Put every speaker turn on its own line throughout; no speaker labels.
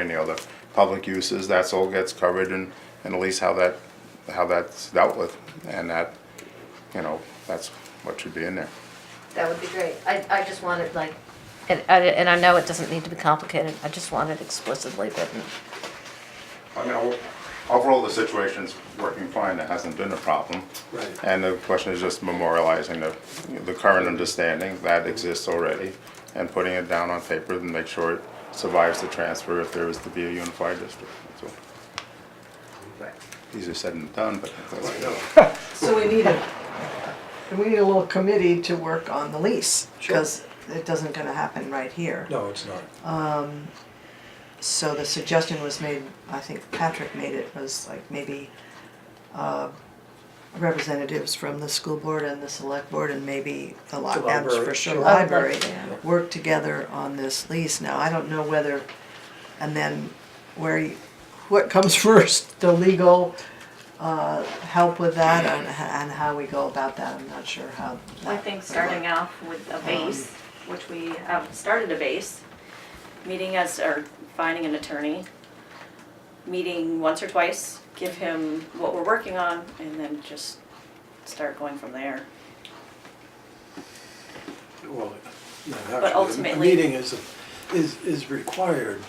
any other public uses, that's all gets covered and, and at least how that, how that's dealt with. And that, you know, that's what should be in there.
That would be great. I, I just wanted like,
And, I- and I know it doesn't need to be complicated, I just want it explicitly written.
I mean, o- overall, the situation's working fine, there hasn't been a problem.
Right.
And the question is just memorializing the, the current understanding that exists already and putting it down on paper and make sure it survives the transfer if there is to be a unified district. That's all. Easier said than done, but that's.
So we need a, we need a little committee to work on the lease, because it doesn't gonna happen right here.
No, it's not.
So the suggestion was made, I think Patrick made it, was like maybe uh, representatives from the school board and the select board and maybe the li- and
library,
for sure
sure.
library,
Yeah.
work together on this lease now. I don't know whether, and then where, you- what comes first, the legal uh, help with that and and how we go about that, I'm not sure how.
I
that-
think starting off with a base, which we have started a base, meeting us, or finding an attorney, meeting once or twice, give him what we're working on, and then just start going from there.
Well, not
But
actually, a
ultimately-
meeting is, a- is, is required,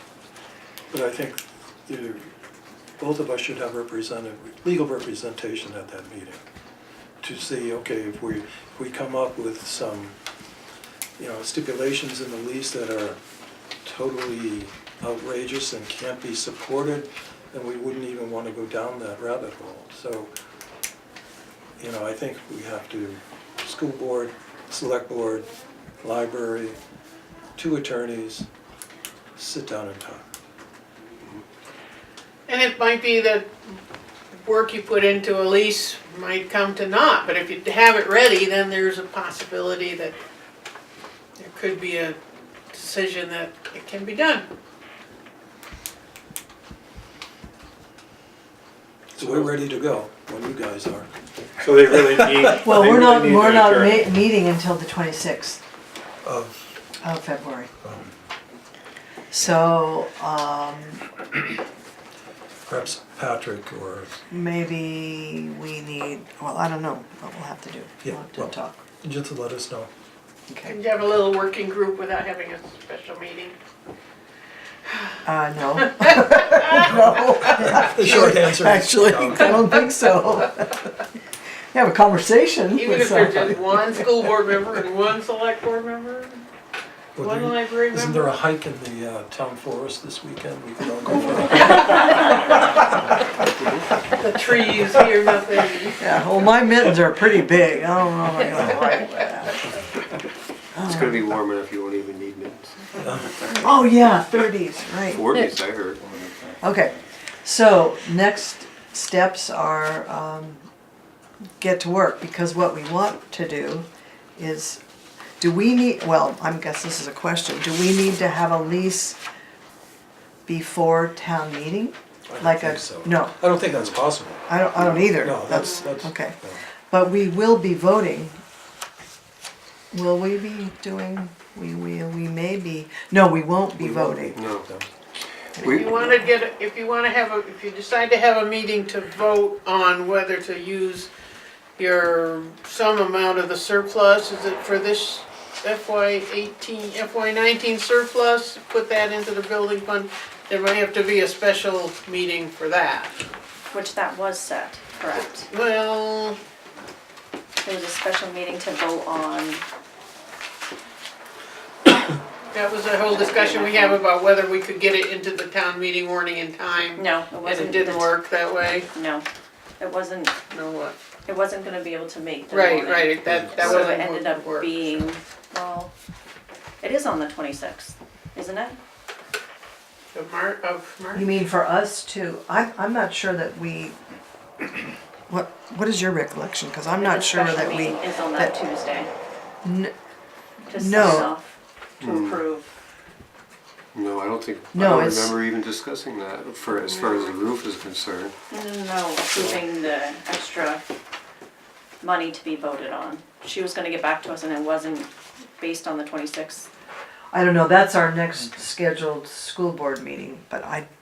but I think you, both of us should have represented, legal representation at that meeting. To see, okay, if we, if we come up with some, you know, stipulations in the lease that are totally outrageous and can't be supported, then we wouldn't even want to go down that rabbit hole. So, you know, I think we have to, school board, select board, library, two attorneys, sit down and talk.
And it might be that work you put into a lease might come to naught, but if you have it ready, then there's a possibility that there could be a decision that it can be done.
So we're ready to go when you guys are.
So they really need.
Well,
they
we're not,
really need
we're
to
not
adjourn.
ma- meeting until the 26th.
Of,
of Oh, February.
um,
So, um,
perhaps Patrick or,
maybe we need, well, I don't know what we'll have to do. We'll
Yeah,
have to
well-
talk.
just let us know.
Okay.
And have a little working group without having a special meeting.
Uh, no. No,
The short answer is,
actually, I don't think so. Have a conversation
Even
with
if there's just
somebody.
one school board member and one select board member,
would
one
we-
library
isn't there
member.
a hike in the uh, town forest this weekend? We could all go for a hike.
The trees here, nothing.
Yeah, well, my mittens are pretty big. I don't know if I'm gonna like that.
It's gonna be warm enough, you won't even need mittens.
Oh, yeah, thirties, right.
Forties, I heard.
Okay, so next steps are, um, get to work, because what we want to do is, do we need, well, I am guess this is a question, do we need to have a lease before town meeting?
I don't
Like a-
think so.
no.
I don't think that's possible.
I don't, I don't either.
No, that's, that's.
Okay,
no.
but we will be voting. Will we be doing, we, we, we may be, no, we won't be voting.
No.
No.
If you wanna get, if you wanna have, a, if you decide to have a meeting to vote on whether to use your, some amount of the surplus, is it for this FY eighteen, FY nineteen surplus? Put that into the building fund, there might have to be a special meeting for that.
Which that was set, correct?
Well,
There was a special meeting to vote on,
that was the whole discussion we have about whether we could get it into the town meeting warning in time.
no, it
And
wasn't.
it didn't work that way,
No, it wasn't,
no what?
it wasn't gonna be able to make the
Right,
warning.
right, that, that
So
wasn't.
it ended up
work.
being, well, it is on the twenty-sixth, isn't it?
Of Mar, of March?
You mean for us to, I'm, I'm not sure that we, what, what is your recollection? Because I'm not
The
sure
special
that we,
meeting Is on that
that-
Tuesday.
N-
To sign
no.
off, to approve.
No, I don't think, I
No,
don't
it's-
remember even discussing that for, as far as the roof is concerned.
No, no, no, approving the extra money to be voted on. She was gonna get back to us and it wasn't based on the twenty-sixth.
I don't know, that's our next scheduled school board meeting, but I